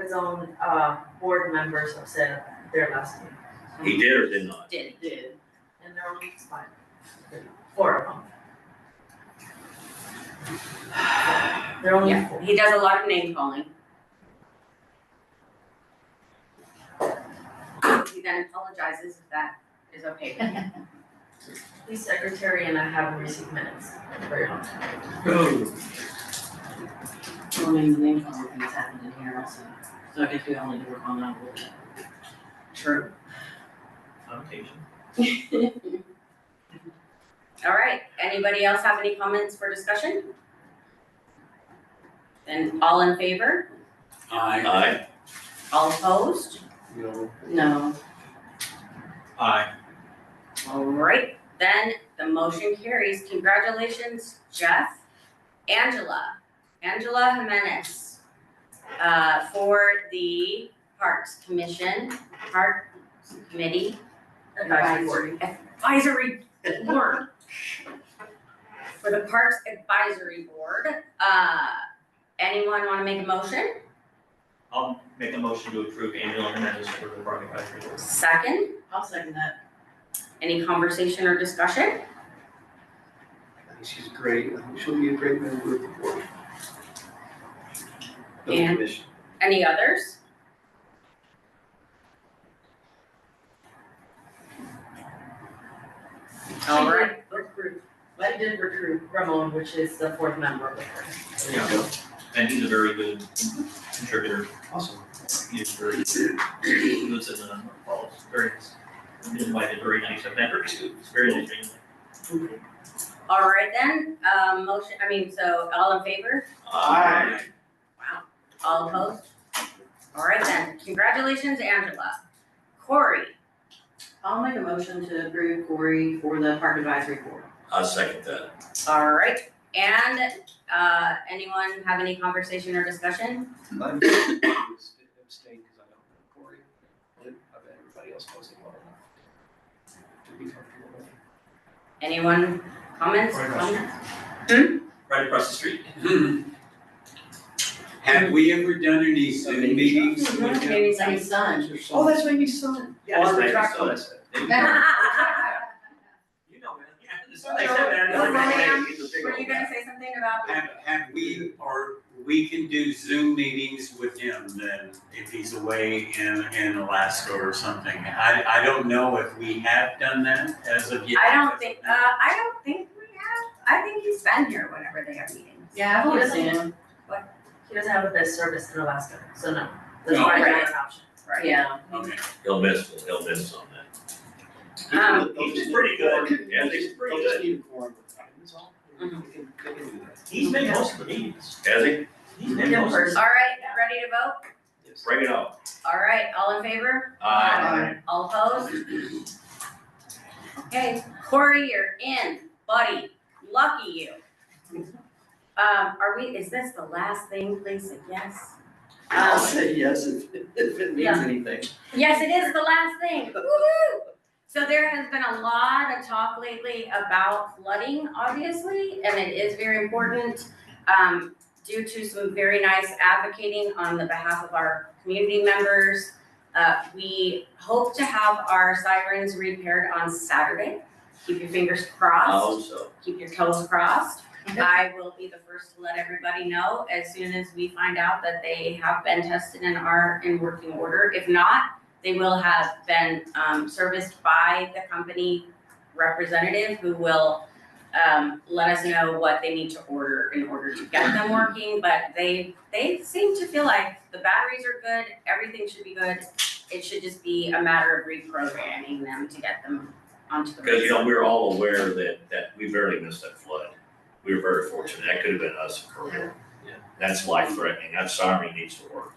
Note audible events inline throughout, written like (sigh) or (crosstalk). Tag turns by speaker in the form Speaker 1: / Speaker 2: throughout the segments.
Speaker 1: his own, uh, board members have said their last name.
Speaker 2: He did or did not?
Speaker 3: Did,
Speaker 1: Did, and they're only five, four of them. They're only
Speaker 3: yeah,
Speaker 1: four.
Speaker 3: he does a lot of name calling. He then apologizes if that is okay with him.
Speaker 1: He's secretary and I haven't received minutes in a very long time.
Speaker 4: Well, maybe the name calling things happened in here also, so I guess we all need to work on that a little bit.
Speaker 5: True. On occasion.
Speaker 3: (laughs) All right, anybody else have any comments for discussion? Then all in favor,
Speaker 2: Aye.
Speaker 3: all opposed? No.
Speaker 5: Aye.
Speaker 3: All right, then the motion carries. Congratulations, Jeff. Angela, Angela Jimenez, uh, for the Parks Commission, Parks Committee
Speaker 1: Advisory board.
Speaker 3: Advisory Board. For the Parks Advisory Board, uh, anyone wanna make a motion?
Speaker 5: I'll make a motion to approve Angela Hernandez for the Park Advisory Board.
Speaker 3: Second,
Speaker 4: I'll second that.
Speaker 3: any conversation or discussion?
Speaker 6: I think she's great, I think she'll be a great member of the board. Of the
Speaker 3: And-
Speaker 6: commission.
Speaker 3: Any others? All
Speaker 1: She
Speaker 3: right.
Speaker 1: did recruit, I did recruit Ramon, which is the fourth member of the board.
Speaker 6: There you go.
Speaker 5: And he's a very good contributor.
Speaker 6: Awesome.
Speaker 5: He's very, he lives in the falls, very, nice. He's invited very nice events, it's very nice. being there.
Speaker 3: All right then, um, motion, I mean, so all in favor,
Speaker 6: Aye.
Speaker 3: wow, all opposed? All right then, congratulations, Angela. Corey,
Speaker 4: I'll make a motion to approve Corey for the park advisory board.
Speaker 2: I'll second that.
Speaker 3: all right, and, uh, anyone have any conversation or discussion?
Speaker 6: I'm
Speaker 3: (coughs)
Speaker 6: going to abstain because I don't know Corey. I bet everybody else knows him well enough to be comfortable with.
Speaker 3: Anyone comments?
Speaker 5: Corey Russell. Right across the street.
Speaker 7: (clears throat) Have we ever done any Zoom meetings with them?
Speaker 3: Maybe some-
Speaker 4: son.
Speaker 6: Oh, that's Amy's son.
Speaker 5: Yeah, it's
Speaker 6: Oh, I
Speaker 5: Amy's
Speaker 6: retract
Speaker 5: son.
Speaker 6: what I said.
Speaker 5: You know, man. Yeah, it's
Speaker 6: I
Speaker 5: nice
Speaker 6: know.
Speaker 5: having that.
Speaker 3: Well, ma'am,
Speaker 5: He's a big
Speaker 3: (laughs) Were
Speaker 5: old
Speaker 3: you
Speaker 5: guy.
Speaker 3: gonna say something about?
Speaker 7: Have, have we, or we can do Zoom meetings with him then, if he's away in, in Alaska or something? I, I don't know if we have done that as of yet.
Speaker 3: I don't think, uh, I don't think we have, I think he's been here whenever they have meetings.
Speaker 4: Yeah, I've
Speaker 1: He
Speaker 4: only
Speaker 1: doesn't-
Speaker 4: seen him.
Speaker 1: He doesn't have the best service in Alaska, so no, that's
Speaker 7: No.
Speaker 1: why I'm
Speaker 3: Right.
Speaker 1: not an option.
Speaker 3: Right.
Speaker 4: Yeah.
Speaker 7: Okay,
Speaker 2: He'll miss, he'll miss on that.
Speaker 3: Um,
Speaker 6: They'll
Speaker 5: He's
Speaker 6: just-
Speaker 5: pretty good, yeah,
Speaker 6: They'll
Speaker 5: he's
Speaker 6: just, they'll
Speaker 5: pretty
Speaker 6: just
Speaker 5: good. Mm-hmm.
Speaker 6: need a quorum of time, that's all. They can, they can do that.
Speaker 5: He's been most of the meetings.
Speaker 2: Has he?
Speaker 5: He's been most of
Speaker 3: all right, ready to vote?
Speaker 6: Yes.
Speaker 2: Just Bring it up.
Speaker 3: All right, all in favor?
Speaker 6: Aye.
Speaker 3: All opposed? Okay, Corey, you're in, buddy, lucky you. Um, are we, is this the last thing, please, yes?
Speaker 6: I'll
Speaker 3: Um,
Speaker 6: say yes if, if it means
Speaker 3: Yeah.
Speaker 6: anything.
Speaker 3: Yes, it is the last thing, woo So there has been a lot of talk lately about flooding, obviously, and it is very important. um, due to some very nice advocating on the behalf of our community members. Uh, we hope to have our sirens repaired on Saturday. Keep your fingers
Speaker 5: Oh,
Speaker 3: crossed,
Speaker 2: Also,
Speaker 3: keep your toes crossed. I will be the first to let everybody know as soon as we find out that they have been tested and are in working order. If not, they will have been um, serviced by the company representative who will um, let us know what they need to order in order to get them working. But they they seem to feel like the batteries are good, everything should be good. It should just be a matter of reprogramming them to get them onto the.
Speaker 2: because you know, we're all aware that, that we barely missed that flood. We were very fortunate. That could have been us for real.
Speaker 6: Yeah.
Speaker 2: That's life threatening. That siren needs to work.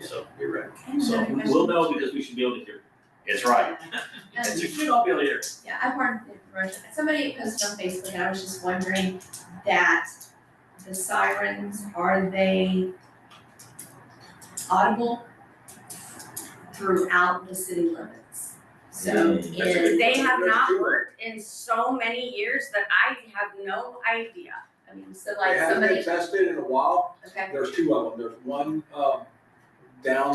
Speaker 6: Yeah.
Speaker 2: So
Speaker 6: You're right.
Speaker 2: So,
Speaker 5: them. We'll know because we should be able to hear.
Speaker 2: it's right.
Speaker 5: (laughs) It's- We should all be able to hear.
Speaker 8: Yeah, I wanted to mention, somebody posted on Facebook, and I was just wondering that the sirens, are they audible throughout the city limits? So
Speaker 2: Mm, that's a
Speaker 8: in,
Speaker 2: good-
Speaker 3: They have not worked in so many years that I have no idea.
Speaker 8: I mean, so
Speaker 7: They
Speaker 8: like
Speaker 7: haven't
Speaker 8: somebody,
Speaker 7: been tested in a while,
Speaker 8: okay,
Speaker 7: there's two of them, there's one, um, down